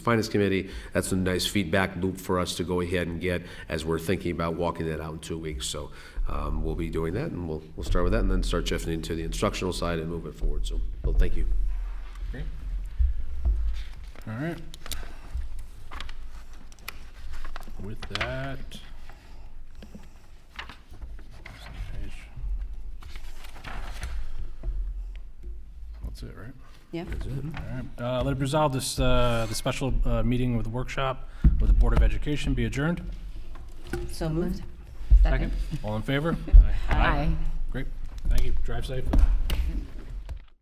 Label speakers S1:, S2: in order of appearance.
S1: Finance Committee, that's a nice feedback loop for us to go ahead and get as we're thinking about walking that out in two weeks. So um, we'll be doing that, and we'll, we'll start with that, and then start shifting into the instructional side and move it forward. So, Bill, thank you.
S2: All right. With that. That's it, right?
S3: Yeah.
S2: All right. Uh, Let it resolve this, uh, the special uh, meeting with workshop with the Board of Education be adjourned.
S3: So moved.
S2: All in favor?
S4: Aye.
S2: Great. Thank you. Drive safe.